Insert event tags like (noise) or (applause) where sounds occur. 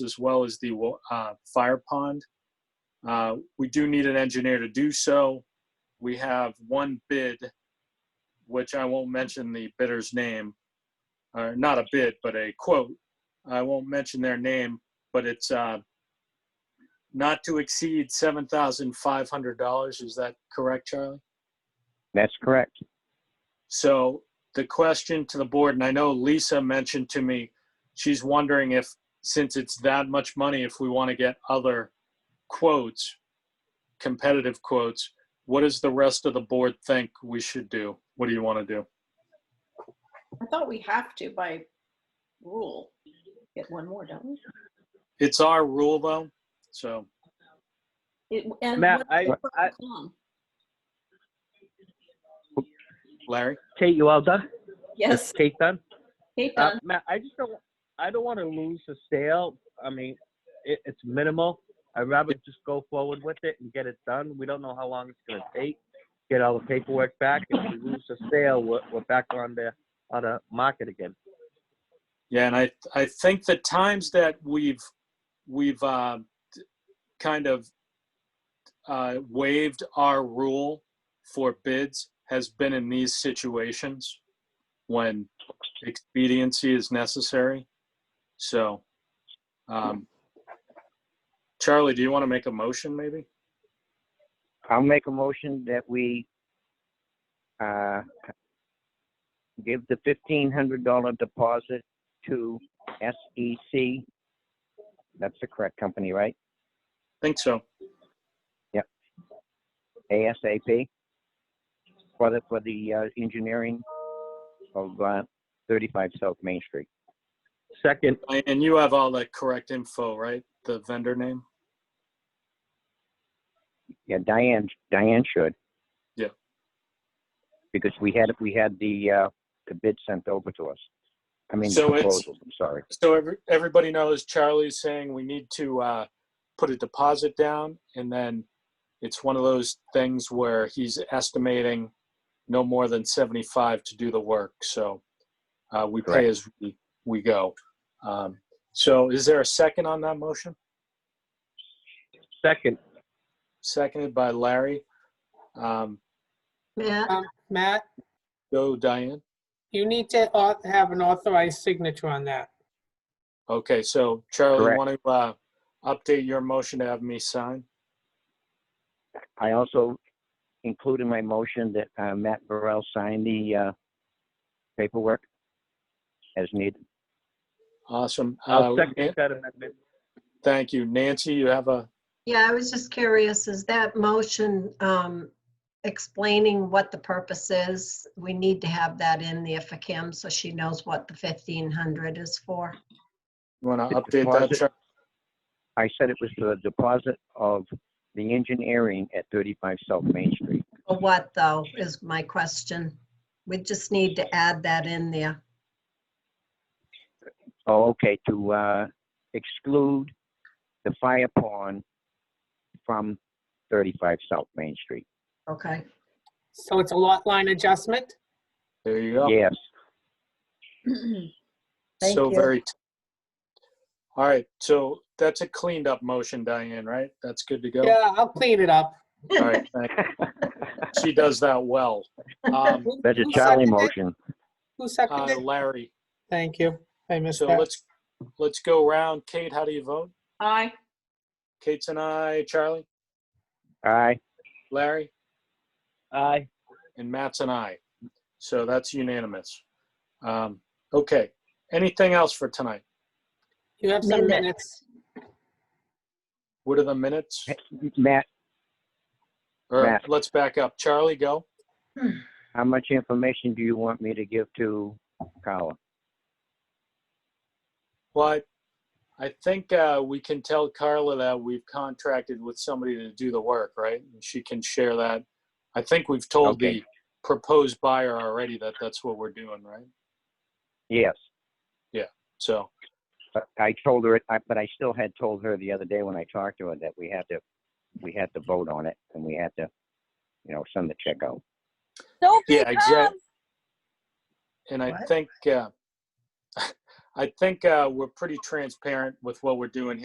as well as the uh, fire pond. Uh, We do need an engineer to do so. We have one bid, which I won't mention the bidder's name, or not a bid, but a quote. I won't mention their name, but it's uh, not to exceed $7,500. Is that correct, Charlie? That's correct. So the question to the board, and I know Lisa mentioned to me, she's wondering if, since it's that much money, if we want to get other quotes, competitive quotes, what does the rest of the board think we should do? What do you want to do? I thought we have to by rule get one more, don't we? It's our rule though, so It- and Matt, what- I, I Larry, Kate, you all done? Yes, Kate done? Kate Uh, done. Matt, I just don't, I don't want to lose the sale. I mean, it, it's minimal. I'd rather just go forward with it and get it done. We don't know how long it's gonna take. Get all the paperwork back. If we lose the sale, we're, we're back on the, on the market again. yeah, and I, I think the times that we've, we've uh, d- kind of uh, waived our rule for bids has been in these situations when expediency is necessary. So, um, Charlie, do you want to make a motion maybe? I'll make a motion that we uh, give the fifteen hundred dollar deposit to SEC. That's the correct company, right? Think so. ASAP for the, for the uh, engineering of uh, thirty-five South Main Street. Second, And you have all the correct info, right? The vendor name? Yeah, Diane, Diane should. Yeah. Because we had, we had the, uh, the bid sent over to us. I mean, the So it's- proposal, I'm sorry. So every, everybody knows Charlie's saying we need to uh, put a deposit down, and then it's one of those things where he's estimating no more than seventy-five to do the work. So uh, we pay Correct. as we, we go. Um, so is there a second on that motion? second, Seconded by Larry. Um, (clears throat) Matt, Matt, go, Diane. you need to au- have an authorized signature on that. Okay, so Charlie, you Correct. want to uh, update your motion to have me sign? I also include in my motion that uh, Matt Burrell sign the uh, paperwork as needed. Awesome. I'll Uh, second Nan- that amendment. Thank you, Nancy. You have a Yeah, I was just curious, is that motion um, explaining what the purpose is? We need to have that in there for Kim so she knows what the 1500 is for. You want to The update that, deposit. Chuck? I said it was the deposit of the engineering at 35 South Main Street. Or what, though, is my question. We just need to add that in there. Oh, okay, to uh, exclude the fire pond from 35 South Main Street. Okay, So it's a lot line adjustment. There you go. Yes, thank So you. very. t- All right, so that's a cleaned up motion, Diane, right? That's good to go? Yeah, I'll clean it up. All right, thank you. She does that well. (laughs) Um, Who- that's a who Charlie seconded it? motion. Who uh, seconded? it? Larry, Thank you. I missed so that. let's, let's go around. Kate, how do you vote? aye. Kate's and I, Charlie, Aye, Larry? Aye. and Matt's an aye. So that's unanimous. Um, okay. Anything else for tonight? You have some Minute. minutes. What are the minutes? Matt, Or Matt. let's back up. Charlie, go. how much information do you want me to give to Carla? Well, I, I think uh, we can tell Carla that we've contracted with somebody to do the work, right? And she can share that. I think we've told the Okay. proposed buyer already that that's what we're doing, right? Yes. So, But I told her, I- but I still had told her the other day when I talked to her that we had to, we had to vote on it and we had to, you know, send the check out. yeah, exactly. And I What? (laughs) think, uh, I think uh, we're pretty transparent with what we're doing here.